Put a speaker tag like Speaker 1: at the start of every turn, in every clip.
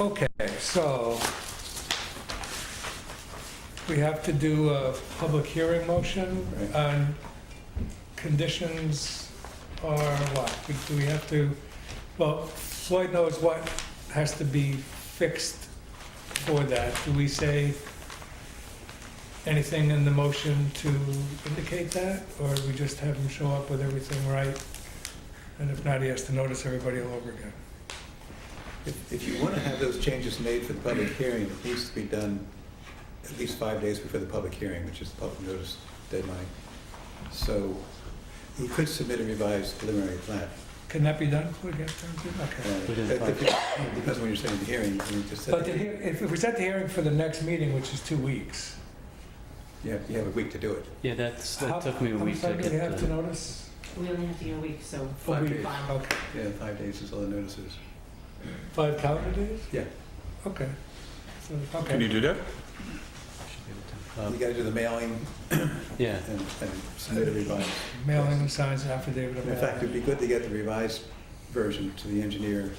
Speaker 1: Okay, so we have to do a public hearing motion on conditions or what? We- Do we have to, well, Floyd knows what has to be fixed for that. Do we say anything in the motion to indicate that? Or do we just have him show up with everything right? And if not, he has to notice everybody all over again.
Speaker 2: If if you want to have those changes made for the public hearing, it needs to be done at least five days before the public hearing, which is the public notice deadline. So you could submit a revised preliminary plat.
Speaker 1: Can that be done? Can we get done? Okay.
Speaker 2: Uh,
Speaker 3: Within
Speaker 2: that-
Speaker 3: five-
Speaker 2: that Depends on when you're saying the hearing, you just
Speaker 1: But the
Speaker 2: said,
Speaker 1: hea- if if we set the hearing for the next meeting, which is two weeks.
Speaker 2: you have, you have a week to do it.
Speaker 3: Yeah, that's,
Speaker 1: how-
Speaker 3: that took me a
Speaker 1: how
Speaker 3: week
Speaker 1: much
Speaker 3: to
Speaker 1: time do we
Speaker 3: get
Speaker 1: have to
Speaker 3: the,
Speaker 1: notice?
Speaker 4: We only have to get a week, so.
Speaker 2: Five days. Oh.
Speaker 4: Fine.
Speaker 1: Okay,
Speaker 2: Yeah, five days is all the notices.
Speaker 1: five calendar days?
Speaker 2: Yeah.
Speaker 1: Okay. So,
Speaker 5: Can you do
Speaker 1: Okay.
Speaker 5: that?
Speaker 3: uh,
Speaker 2: You got to do the mailing
Speaker 3: yeah,
Speaker 2: and and submit a revised.
Speaker 1: Mailing and signs and affidavit of
Speaker 2: In fact,
Speaker 1: mailing.
Speaker 2: it'd be good to get the revised version to the engineer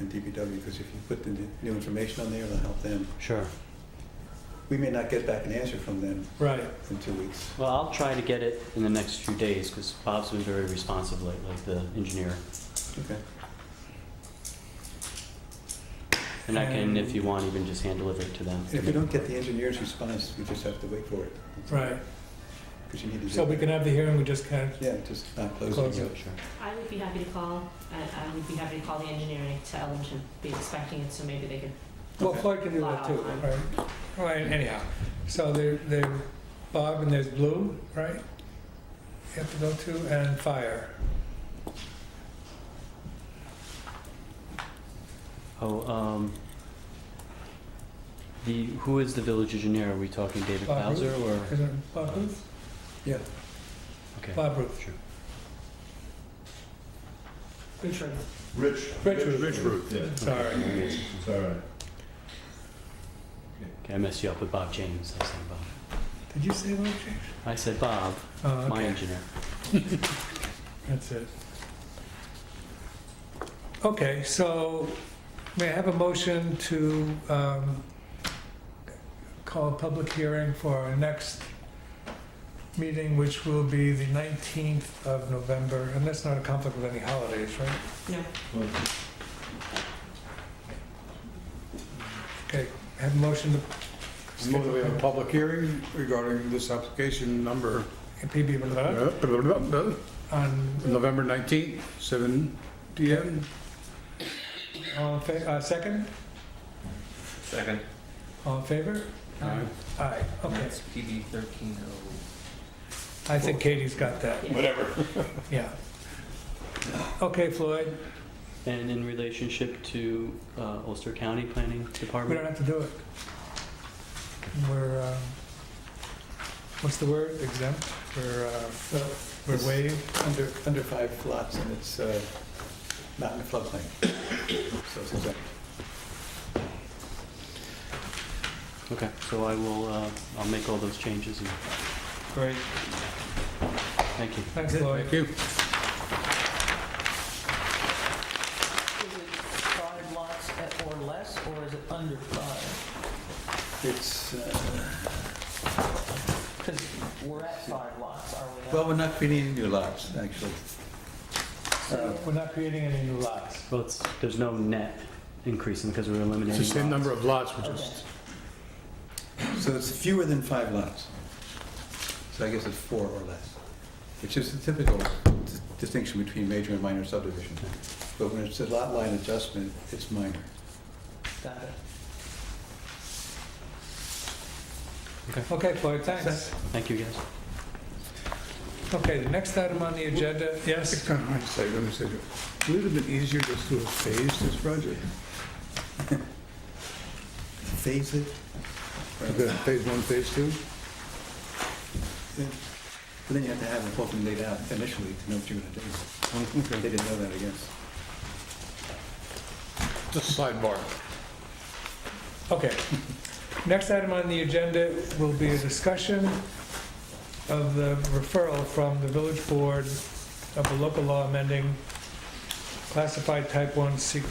Speaker 2: and DPW, because if you put the new information on there, it'll help them.
Speaker 3: sure.
Speaker 2: We may not get back an answer from them
Speaker 1: Right,
Speaker 2: in two weeks.
Speaker 3: Well, I'll try to get it in the next few days, because Bob's been very responsive lately, the engineer.
Speaker 2: Okay.
Speaker 3: And I can, if you want, even just hand deliver it to them.
Speaker 2: And if we don't get the engineer's response, we just have to wait for it.
Speaker 1: right.
Speaker 2: Because you need to do.
Speaker 1: So we can have the hearing, we just can't.
Speaker 2: Yeah, just not close
Speaker 1: Close
Speaker 2: it.
Speaker 3: Yeah, Sure.
Speaker 4: I would be happy to call, I, I would be happy to call the engineer and tell them to be expecting it, so maybe they could.
Speaker 1: Well, Floyd can do that too, right? All right, anyhow. So there, there, Bob and there's Blue, right? You have to go to, and Fire.
Speaker 3: Oh, um, the, who is the village engineer? Are we talking David
Speaker 1: Bob Ruth?
Speaker 3: Bowser or?
Speaker 1: Isn't it Bob Ruth?
Speaker 3: Okay.
Speaker 1: Bob Ruth.
Speaker 3: Sure.
Speaker 4: Richard.
Speaker 6: Rich.
Speaker 1: Rich Ruth.
Speaker 6: Rich Ruth, yeah.
Speaker 1: Sorry.
Speaker 6: It's all right.
Speaker 3: Okay, I messed you up with Bob James. I said Bob.
Speaker 1: Did you say Bob James?
Speaker 3: I said Bob,
Speaker 1: Oh, okay.
Speaker 3: my engineer.
Speaker 1: That's it. Okay, so may I have a motion to um, call a public hearing for our next meeting, which will be the 19th of November, and that's not a conflict with any holidays, right?
Speaker 4: No.
Speaker 6: Well,
Speaker 1: Okay, have a motion to...
Speaker 7: Move that we have a public hearing regarding this application number
Speaker 1: PB Boulevard
Speaker 7: on
Speaker 1: on,
Speaker 7: November 19th, 7 PM.
Speaker 1: all in fa- uh, second?
Speaker 5: Second.
Speaker 1: All in favor?
Speaker 7: Aye.
Speaker 1: Aye, okay.
Speaker 5: That's PB thirteen oh.
Speaker 1: I think Katie's got that,
Speaker 4: Yeah.
Speaker 1: yeah. Okay, Floyd,
Speaker 3: And in relationship to uh, Ulster County Planning
Speaker 1: we don't
Speaker 3: Department?
Speaker 1: have to do it. We're, um, what's the word, exempt, we're, uh,
Speaker 2: Well,
Speaker 1: we're waived?
Speaker 2: Under, under five lots and it's uh, not in the floodplain. So it's exempt.
Speaker 3: Okay, so I will, uh, I'll make all those changes and
Speaker 1: Great.
Speaker 3: thank you.
Speaker 1: Thanks, Floyd.
Speaker 7: Thank you.
Speaker 8: Is it five lots at- or less, or is it under five?
Speaker 2: It's, uh,
Speaker 8: Because we're at five lots, are we not?
Speaker 2: well, we're not creating new lots, actually. Uh,
Speaker 1: We're not creating any new lots.
Speaker 3: Well, it's, there's no net increase in because we're eliminating.
Speaker 7: It's the
Speaker 3: lots.
Speaker 7: same number of lots, which
Speaker 8: Okay.
Speaker 7: is,
Speaker 2: So it's fewer than five lots. So I guess it's four or less, which is the typical dis- distinction between major and minor subdivision. But when it's a lot line adjustment, it's minor.
Speaker 8: Got it.
Speaker 1: Okay, Floyd, thanks.
Speaker 3: Thank you, guys.
Speaker 1: Okay, the next item on the agenda,
Speaker 6: It's
Speaker 1: yes?
Speaker 6: kind of hindsight, let me say, it would it have been easier just to have phased this project.
Speaker 2: Phase it,
Speaker 6: Have it Phase one, phase two?
Speaker 2: then- but then you have to have the whole thing laid out initially to know what you're gonna do. They didn't know that, I guess.
Speaker 7: just sidebar.
Speaker 1: Okay. Next item on the agenda will be a discussion of the referral from the village board of the local law amending classified type 1 secret